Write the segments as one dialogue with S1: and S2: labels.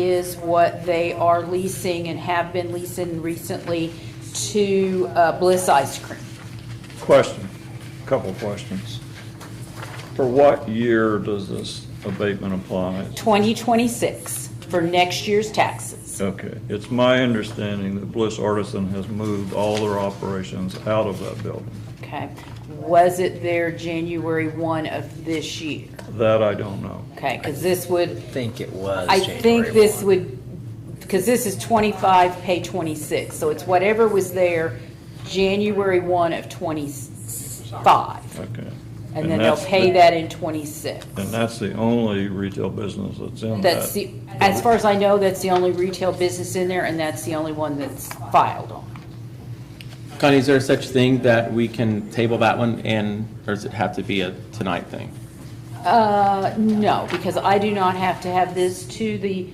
S1: is what they are leasing and have been leasing recently to uh, Bliss Ice Cream.
S2: Question, couple questions. For what year does this abatement apply?
S1: 2026 for next year's taxes.
S2: Okay, it's my understanding that Bliss Artisan has moved all their operations out of that building.
S1: Okay. Was it there January 1 of this year?
S2: That I don't know.
S1: Okay, because this would,
S3: think it was.
S1: I
S3: January
S1: think this
S3: 1.
S1: would, because this is 25, pay 26. So it's whatever was there January 1 of 25.
S2: Okay.
S1: And then they'll
S2: that's
S1: pay
S2: the-
S1: that in 26.
S2: And that's the only retail business that's in that.
S1: That's the, as far as I know, that's the only retail business in there, and that's the only one that's filed on.
S4: Connie, is there such thing that we can table that one and, or does it have to be a tonight thing?
S1: Uh, no, because I do not have to have this to the,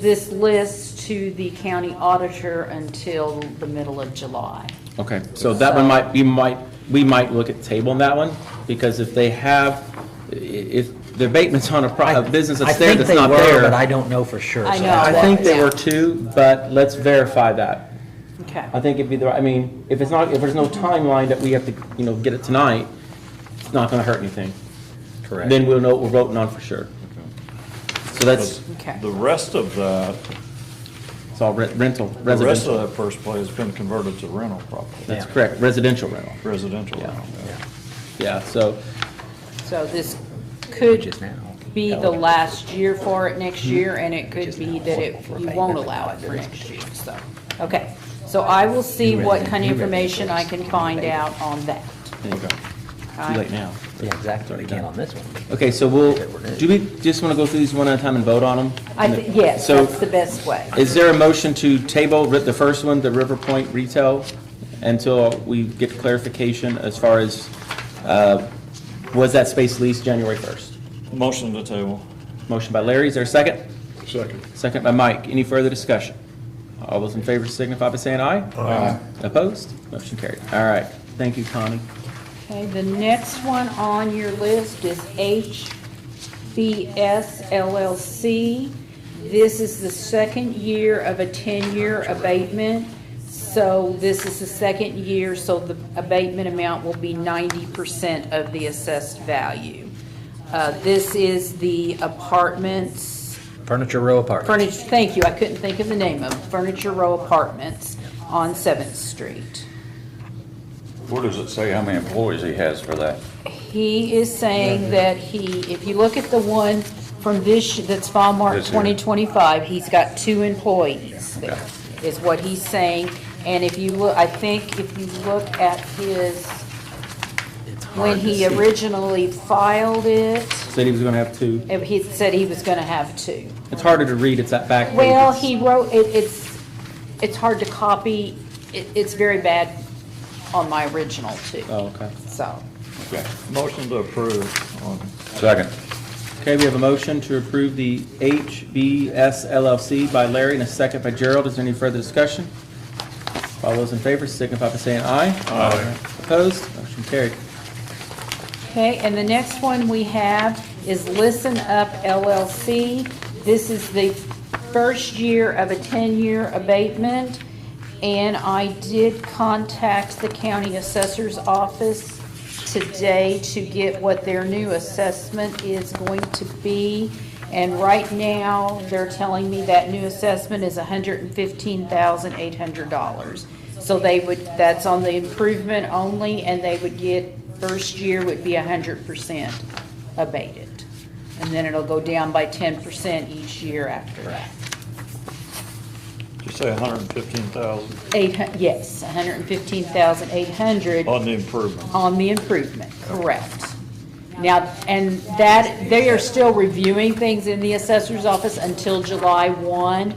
S1: this list to the county auditor until the middle of July.
S4: Okay, so that one might, we might, we might look at tabling that one, because if they have, i- if the abatement's on a pro- a business
S3: I
S4: that's there
S3: think
S4: that's
S3: they
S4: not
S3: were,
S4: there.
S3: But I don't know for sure.
S1: I
S3: so
S1: know.
S3: that's
S4: I
S3: why-
S4: think there
S1: Yeah.
S4: were two, but let's verify that.
S1: Okay.
S4: I think it'd be the, I mean, if it's not, if there's no timeline that we have to, you know, get it tonight, it's not gonna hurt anything.
S3: Correct.
S4: Then we'll know what we're voting on for sure. So that's,
S1: Okay.
S2: The rest of that,
S4: it's all re- rental,
S2: the rest of
S4: residential.
S2: that first play has been converted to rental property,
S4: That's correct, residential rental.
S2: residential
S4: Yeah.
S2: rental.
S4: Yeah, so,
S1: So this
S3: Which
S1: could
S3: is now.
S1: be the last year for it next year,
S4: Hmm.
S1: and it could be that it, you won't allow it for next year, so. Okay, so I will see what kind of information I can find out on that.
S4: okay,
S1: all
S4: too
S1: right?
S4: late now.
S3: Yeah, exactly. We can't on this one.
S4: Okay, so we'll, do we just want to go through these one at a time and vote on them?
S1: I, thi- yes,
S4: So-
S1: that's the best way.
S4: Is there a motion to table the first one, the River Point retail, until we get clarification as far as, uh, was that space leased January 1st?
S2: Motion to table.
S4: Motion by Larry, is there a second?
S2: Second.
S4: Second by Mike, any further discussion? All those in favor signify by saying aye. Aye. Opposed? Motion carried. All right, thank you, Connie.
S1: Okay, the next one on your list is HBS LLC. This is the second year of a 10-year abatement. So this is the second year, so the abatement amount will be 90% of the assessed value. Uh, This is the apartments,
S3: Furniture Row Apartments.
S1: furniture, thank you, I couldn't think of the name of, it, Furniture Row Apartments on 7th Street.
S5: Where does it say how many employees he has for that?
S1: He is saying that he, if you look at the one from this, that's file mark
S5: This year.
S1: 2025, he's got two employees there, is what he's saying. And if you look, I think if you look at his,
S3: It's hard
S1: when
S3: to
S1: he
S3: see.
S1: originally filed it,
S4: Said he was going to have two.
S1: eh, he said he was going to have two.
S4: It's harder to read, it's that back page.
S1: Well,
S4: It's-
S1: he wrote, it, it's, it's hard to copy, it, it's very bad on my original too.
S4: Oh, okay.
S1: So,
S5: Okay.
S2: Motion to approve on
S5: Second.
S4: Okay, we have a motion to approve the HBS LLC by Larry and a second by Gerald. Is there any further discussion? All those in favor signify by saying aye. Aye. Opposed? Motion carried.
S1: Okay, and the next one we have is Listen Up LLC. This is the first year of a 10-year abatement, and I did contact the county assessor's office today to get what their new assessment is going to be. And right now, they're telling me that new assessment is $115,800. So they would, that's on the improvement only, and they would get, first year would be hundred percent abated. And then it'll go down by ten percent each year after that.
S2: Did you say 115,000
S1: Eight, hun- yes, hundred and fifteen thousand eight hundred
S2: on the improvement?
S1: on the improvement, correct. Now, and that, they are still reviewing things in the assessor's office until July one.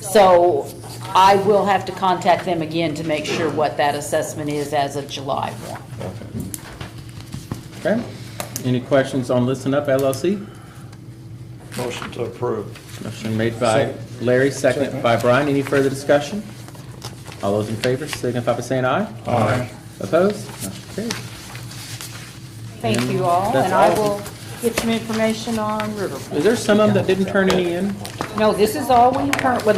S1: So I will have to contact them again to make sure what that assessment is as of July one.
S4: Okay? Any questions on Listen Up LLC?
S2: Motion to approve.
S4: Motion made by Larry, second by Brian. Any further discussion? All those in favor signify by saying aye. Aye. Opposed? Motion carried.
S1: Thank you all,
S4: That's
S1: and I will
S4: all.
S1: get some information on Riverfront.
S4: Is there some of them that didn't turn any in?
S1: No, this is all we current, well,